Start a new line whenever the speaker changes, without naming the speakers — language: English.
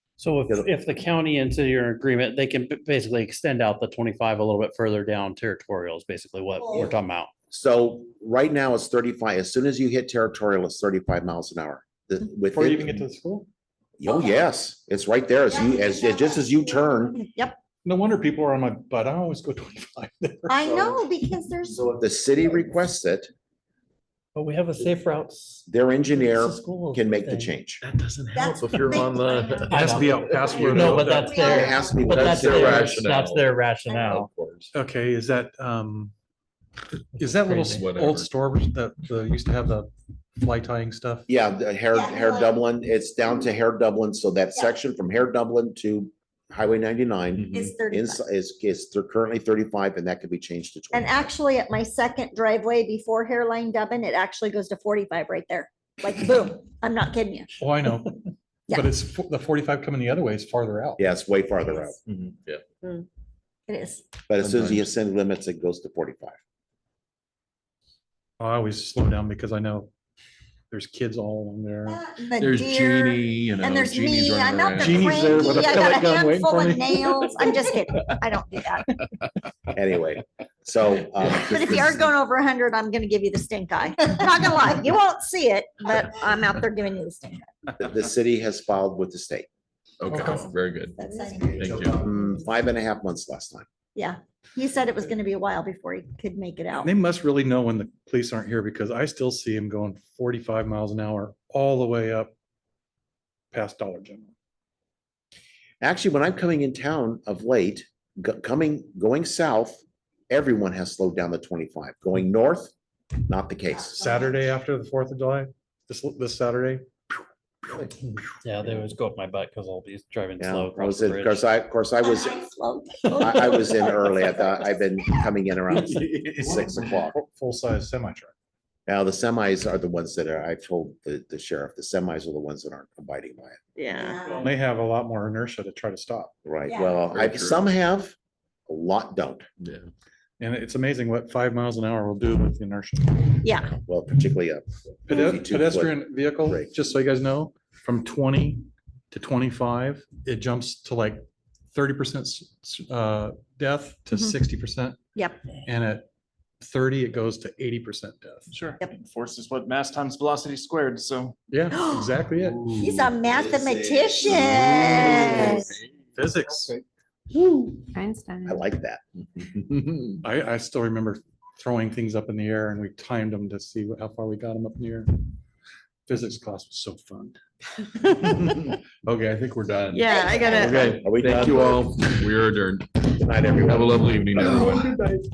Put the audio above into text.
So if,
Yeah, the-
if the county and city are in agreement, they can b- basically extend out the twenty-five a little bit further down territorial is basically what we're talking about.
So right now it's thirty-five. As soon as you hit territorial, it's thirty-five miles an hour. The- with
Before you
it-
even get to the school?
Oh, yes, it's right there. As you, as, just as you turn,
Yep,
No wonder people are on my butt. I always go twenty-five there.
I know, because there's,
so if the city requests it,
But we have a safe routes.
their engineer
It's a school
can make the
thing.
change.
That doesn't help
that's.
if you're on the.
I know.
SBL password.
No, but that's
It
their,
has to be,
but
that's their rationale.
That's their rationale.
Okay, is that, um, is that little s-
Crazy. Whatever.
old store that, the, used to have the fly tying stuff?
Yeah, the Hair,
Yeah,
Hair
like-
Dublin, it's down to Hair Dublin. So that
Yeah.
section from Hair Dublin to Highway ninety-nine
Is
Mm-hmm.
thirty,
is, is, is they're currently thirty-five and that could be changed to twenty.
and actually at my second driveway before Hairline Dubbin, it actually goes to forty-five right there. Like boom, I'm not kidding you.
Oh, I know.
Yeah.
But it's fo- the forty-five coming the other way is farther out.
Yeah, it's way farther out.
It is.
But as soon as you ascend limits, it goes to forty-five.
I always slow down because I know there's kids all along there.
The
Uh, There's
deer,
Genie, you know.
And there's me,
Genie's
I'm
running
not the
around.
Genie's there with a
cranky, I got
pellet
a
gun waiting
handful
for
of
me.
nails. I'm just kidding. I don't do that.
Anyway, so. um,
But if you are going over hundred, I'm gonna give you the stink eye. Not gonna lie, you won't see it, but I'm out there giving you the stink eye.
The, the city has filed with the state,
Okay, very good.
That's
Thank
it.
you.
mm, five and a half months last time.
Yeah, he said it was gonna be a while before he could make it out.
They must really know when the police aren't here because I still see them going forty-five miles an hour all the way up past Dollar General.
Actually, when I'm coming in town of late, go- coming, going south, everyone has slowed down to twenty-five. Going north, not the case.
Saturday after the Fourth of July, this, this Saturday.
Yeah, they always go up my butt because I'll be driving
Yeah,
slow
I
across
was,
the
in- of course,
bridge.
I, of course, I was, I, I was in early. I thought I've been coming in around six o'clock.
Full-size semi truck.
Now, the semis are the ones that are, I told the, the sheriff, the semis are the ones that aren't abiding by it.
Yeah.
They have a lot more inertia to try to stop.
Right,
Yeah.
well,
Very
I,
true.
some have, a lot don't.
Yeah.
And it's amazing what five miles an hour will do with the inertia.
Yeah,
Well, particularly uh, a
Pede-
52 foot
Pedestrian vehicle,
brake.
just so you guys know, from twenty to twenty-five, it jumps to like thirty percent uh, death to
Mhm.
sixty percent.
Yep.
And at thirty, it goes to eighty percent death.
Sure.
Yep.
Force is what mass times velocity squared, so.
Yeah, exactly it.
he's a mathematician.
Physics.
Einstein.
I like that.
I, I still remember throwing things up in the air and we timed them to see how far we got them up in the air. Physics class was so fun.
Okay, I think we're done.
Yeah, I gotta.
Okay,
Are we
thank
done?
you all. We are adjourned.
Good night, everyone.
Have a lovely evening, everyone.